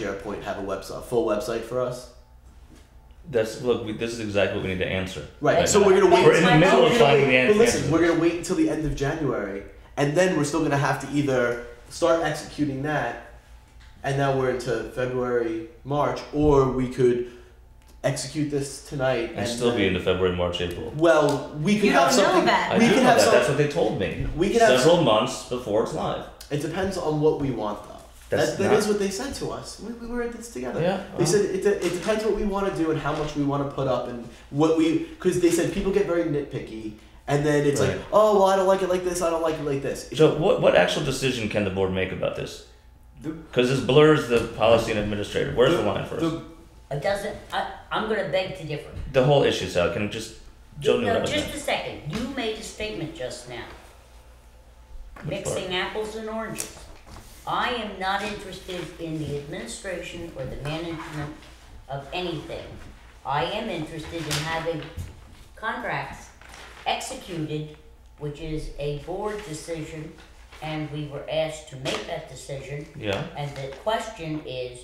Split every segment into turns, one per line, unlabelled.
SharePoint have a website, a full website for us?
That's look. We, this is exactly what we need to answer.
Right.
Right.
So we're gonna wait.
We're in the middle of
We're gonna
finding the
wait-
answer.
But listen, we're gonna wait until the end of January, and then we're still gonna have to either start executing that, and now we're into February, March, or we could execute this tonight
and still be
then-
into February, March, April.
Well, we could
You
have
don't know
something.
that.
I
We
do
could
know
have
that.
some-
That's what they told me.
We could have.
Several months before it's live.
It depends on what we want, though.
That's
That, that
not-
is what they said to us. We, we were at this together.
Yeah,
They
uh-huh.
said it, de- it depends what we want to do and how much we want to put up and what we because they said people get very nitpicky and then it's
Right.
like oh well I don't like it like this I don't like it like this. It-
So what what actual decision can the board make about this? Because this blurs the policy and administrator. Where's the line first? The,
It doesn't, I, I'm gonna beg to differ.
whole issue, Sal. Can it just Joe knew what I
No,
was
just
saying.
a second, you made a statement just now.
Which part?
Mixing apples and oranges. I am not interested in the administration or the management of anything. I am interested in having contracts executed, which is a board decision, and we were asked to make that decision.
Yeah.
And the question is,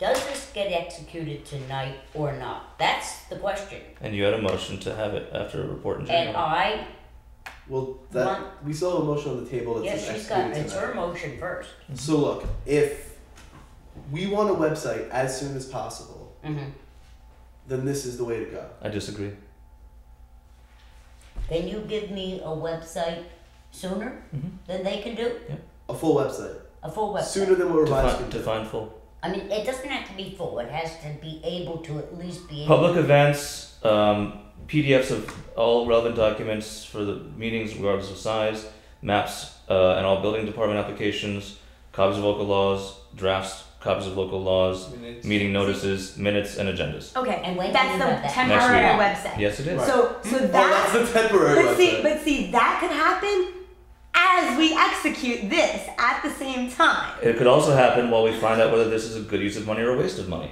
does this get executed tonight or not? That's the question.
And you had a motion to have it after a report in
And
January.
I,
Well, that
Mon-
we still have a motion on the table. That's
yeah,
been
she's got,
executed
it's
tonight.
her motion first.
Mm-hmm.
So look, if we want a website as soon as possible,
Mhm.
then this is the way to go.
I disagree.
Can you give me a website sooner
Mhm.
than they can do?
A full website
A full website?
sooner than what revised
Define,
can do.
define full.
I mean, it doesn't have to be full, it has to be able to at least be able.
Public events, um, PDFs of all relevant documents for the meetings regardless of size, maps uh, and all building department applications, copies of local laws, drafts, copies of local laws, meeting notices, minutes, and agendas.
Okay,
And when
that's
can
the
you have that?
temporary
Next
website.
Yes, it is.
Right.
So, so
Oh, that's
that.
the temporary
But see,
website.
but see, that could happen as we execute this at the same time.
It could also happen while we find out whether this is a good use of money or a waste of money.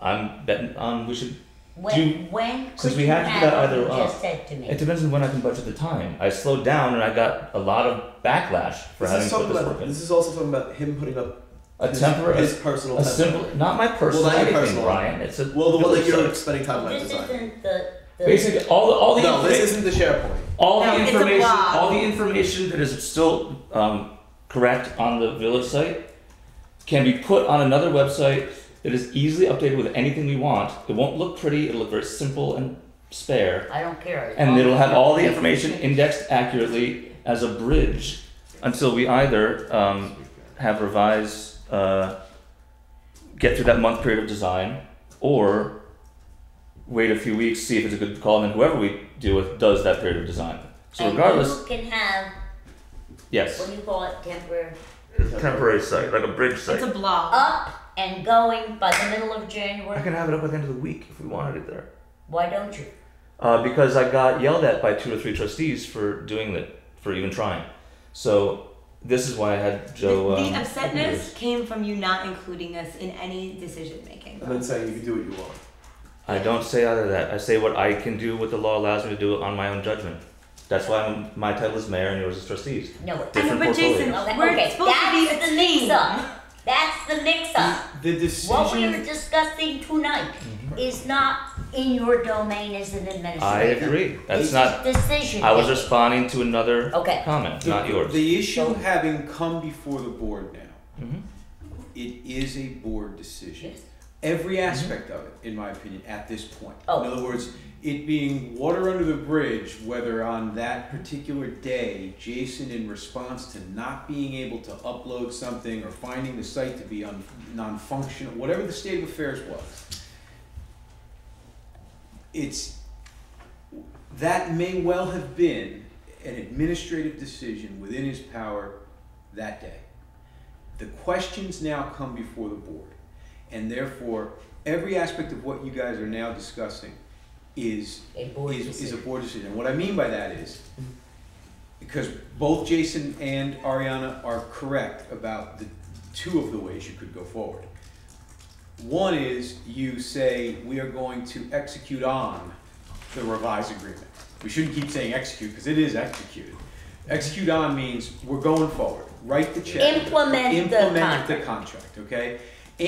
I'm betting on we should.
When,
Do-
when could
since we
you
have to do that
have what
either
you
or.
just said to
It
me?
depends on when I can budget the time. I slowed down and I got a lot of backlash for
this
having
is
put
talking
this
about
work in.
this is also talking about him putting up
A
his,
temporary,
his personal
a
temper.
simple, not my personal,
Well, not your
everything,
personal.
Brian. It's a
Well, the one that
it's
you're
a-
spending time on
This
design.
isn't the, the.
Basically, all the all the
No, this
informa-
isn't the SharePoint.
all
No,
the
it's a
information,
blog.
all the information that is still um, correct on the village site can be put on another website that is easily updated with anything we want. It won't look pretty. It'll look very simple and spare,
I don't care. as long
and it'll
as
have
you-
all the information indexed accurately as a bridge until we either um, have revised, uh, get through that month period of design, or wait a few weeks, see if it's a good call, and then whoever we deal with does that period of design. So
And
regardless,
you can have, what
yes,
do you call it, temporary,
temporary site, like a bridge site.
a blog.
up and going by the middle of
I
January.
can have it up at the end of the week if we wanted it there.
Why don't you?
Uh, because I got yelled at by two or three trustees for doing that, for even trying. So this is why I had Joe.
the,
um,
the upsetness came from you not including us in any decision making.
And then saying you can do what you want.
I don't say either of that. I say what I can do, what the law allows me to do on my own judgment. That's why I'm, my title is mayor and yours is trustees.
No, it
Different
but Jason,
portfolios.
Okay,
we're
okay,
supposed to be
that's
a
the
team.
mix-up. That's the mix-up.
The
What we
decision.
are discussing tonight is not in your domain as an
Mm-hmm. I
administrator.
agree. That's
It's
not.
Decision.
I was
making.
responding to another
Oh.
Okay.
comment,
The-
not yours.
The issue
Don't-
having come before the board now,
Mhm.
it is a board decision.
Yes.
Every aspect of it, in my opinion, at this point.
Oh.
In other words, it being water under the bridge, whether on that particular day, Jason, in response to not being able to upload something or finding the site to be un- non-functional, whatever the state of affairs was, it's that may well have been an administrative decision within his power that day. The questions now come before the board, and therefore, every aspect of what you guys are now discussing is,
A board
is, is a
decision.
board decision. And what I mean by that is, because both Jason and Ariana are correct about the two of the ways you could go forward. One is you say, we are going to execute on the revised agreement. We shouldn't keep saying execute, because it is executed. Execute on means we're going forward, write the check.
Implement the
Implement the contract, okay?